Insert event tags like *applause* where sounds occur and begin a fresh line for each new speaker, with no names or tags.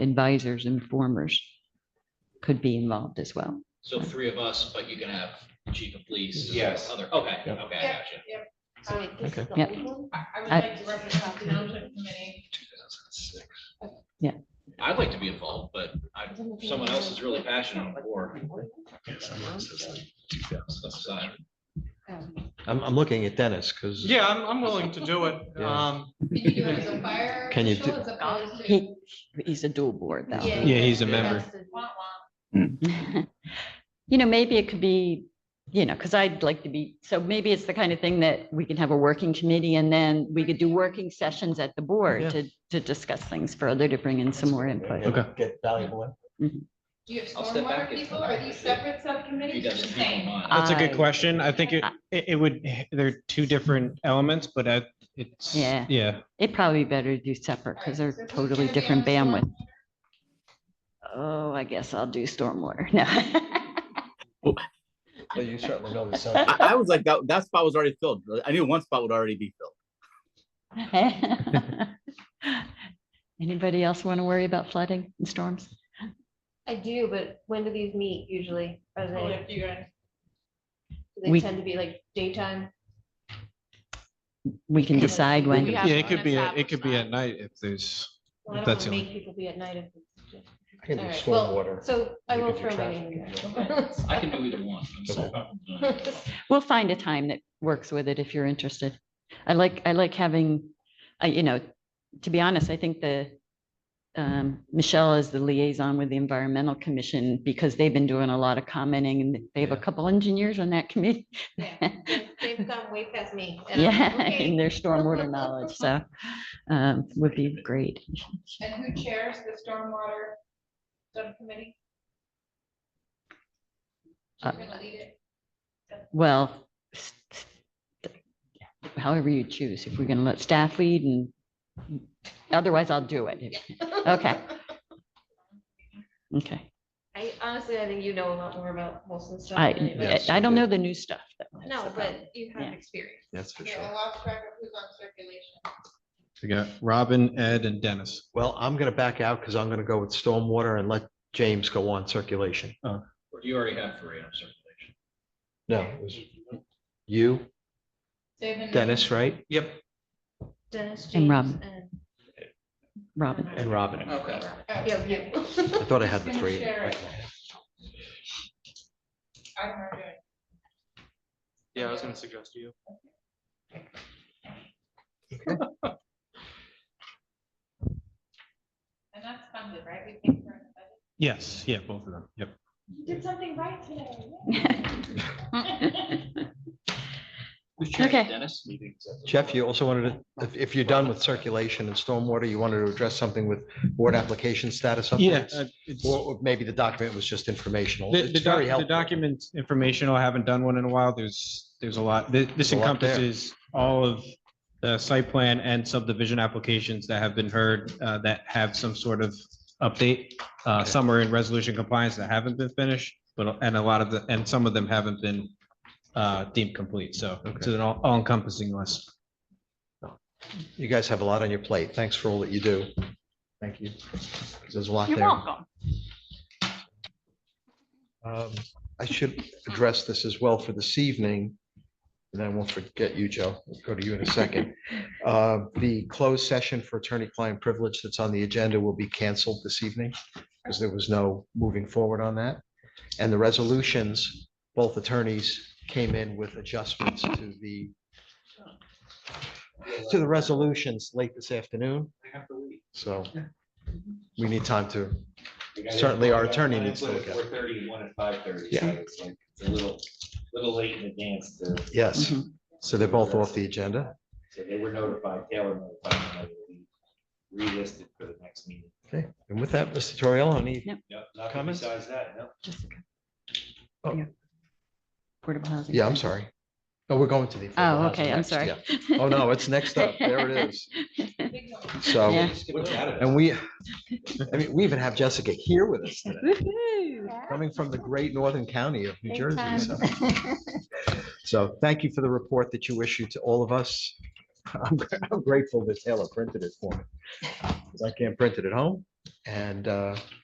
advisors, informers could be involved as well.
So three of us, but you can have chief of police.
Yes.
Other, okay, okay, I
Yep.
got you.
I mean, this is
Okay.
the
Yeah.
legal-
I I would
I-
like to represent the township committee.
2006.
Yeah.
I'd like to be involved, but I, someone else is really passionate on the board. Aside.
Um,
I'm, I'm looking at Dennis, because.
Yeah, I'm, I'm willing to do
*laughs*
it.
Yeah.
Um,
Can you do it as a fire
Can you
official
do-
as opposed to?
He, he's a dual board though.
Yeah, he's a member.
that's the wah-wah.
*laughs* You know, maybe it could be, you know, because I'd like to be, so maybe it's the kind of thing that we can have a working committee and then we could do working sessions at the
Yeah.
board to, to discuss things further, to bring in some more input.
Okay.
Get valuable. in-
Do you have
I'll step back
stormwater people? Are these separate
He
subcommittees or the
doesn't keep in
same?
mind.
That's a
I-
good question. I think
Uh,
it, it it would, there are two different elements, but I- it's,
Yeah.
yeah.
It'd probably be better to do separate because
All right,
they're
so who's
totally
gonna be
different
on
bandwidth. Oh, I guess I'll do stormwater. *laughs* No.
Well, you certainly know the
I,
*laughs*
subject.
I was like, that, that spot was already filled. I knew one spot would already be filled.
*laughs* Anybody else want to worry about flooding and storms?
I do, but when do these meet usually? Are
Oh,
they,
yeah, you guys.
do they
We-
tend to be like daytime?
We can decide
We
when.
can
Yeah, it could be, a-
established
it could be
that.
at night if there's,
Well, I don't want
That's
to
the only-
make people be at night if. it's-
I can do
All right, well,
stormwater.
So I
You
will
can do
throw my name in
traffic
there.
I can do either one. I'm sorry. *laughs*
*laughs*
We'll find a time that works with it if you're interested. I like, I like having, I, you know, to be honest, I think the um, Michelle is the liaison with the Environmental Commission because they've been doing a lot of commenting and they have a
Yeah.
couple engineers on that committee. *laughs*
Yeah, they- They've gone way past me. and I'm like,
Yeah, in
okay.
their stormwater knowledge, so um, would be great.
And who chairs the stormwater subcommittee?
Uh,
Who's gonna lead it?
Well, s- s- however you choose, if we're going to let staff lead and otherwise I'll do it. Okay. Okay.
I honestly, I think you know a lot more about most of the stuff. than anybody
I,
else.
I
you
don't
do.
know the new stuff. though. That's the
No,
problem.
but you
Yeah.
have experience.
That's for
Yeah, I
sure.
lost track of who's on circulation.
we got Robin, Ed and Dennis.
Well, I'm going to back out because I'm going to go with stormwater and let James go on circulation.
Or do you already have three on circulation?
No, it was you,
Saban-
Dennis, right? Yep.
Dennis,
And
James,
Robin.
and-
Robin,
And Robin.
Okay.
Oh,
Yeah,
yeah.
you.
I thought I had the
Who's gonna
three.
share it? I don't know. how to do it.
yeah, I was gonna suggest you.
And that's funded, right? We came from.
Yes, yeah, both of them. Yep.
You did something right today.
*laughs*
Who's chairing
Okay.
Dennis?
Jeff, you also wanted to, if, if you're done with circulation and stormwater, you wanted to address something with board application status
Yeah.
updates?
uh, it's-
Or or maybe the document was just informational.
The, the
It's very
doc- the
helpful.
document informational, I haven't done one in a while. There's, there's a lot. Th-
There's
This
a lot there.
encompasses all of the site plan and subdivision applications that have been heard uh, that have some sort of update. Uh, Some are in resolution compliance that haven't been finished, but, and a lot of the, and some of them haven't been uh, deemed complete. So it's an all all encompassing list.
You guys have a lot on your plate. Thanks for all that you do. Thank you. There's a lot
you're
there.
welcome.
Um, I should address this as well for this evening. And I won't forget you, Joe. We'll go to you in a
*laughs*
second. Uh, The closed session for attorney-client privilege that's on the agenda will be canceled this evening because there was no moving forward on that. And the resolutions, both attorneys came in with adjustments to the to the resolutions late this afternoon. So we need time to, certainly our attorney needs to look at it.
Four thirty and one at five thirty.
Yeah.
It's like, it's a little, little late in advance to,
yes.
Mhm.
So they're both off the agenda.
so they were notified, Taylor notified. and they Relisted for the next meeting.
Okay, and with that, Mr. Torriello, any,
Yep. Nothing
Comments?
besides that, no.
Jessica.
Oh.
Yeah. Portable housing.
yeah, I'm sorry. Oh, we're going to the. affordable
Oh,
housing
okay, I'm
next,
sorry.
yeah. Oh, no, it's next up. There it is.
Big one.
*laughs*
So,
Yeah.
Look at it.
and we, I mean, we even have Jessica here with us today,
Woohoo.
coming from the great northern county of New Jersey. So so thank you for the report that you issued to all of us. I'm I'm grateful that Taylor printed it for me. 'cause I can't print it at home. And uh,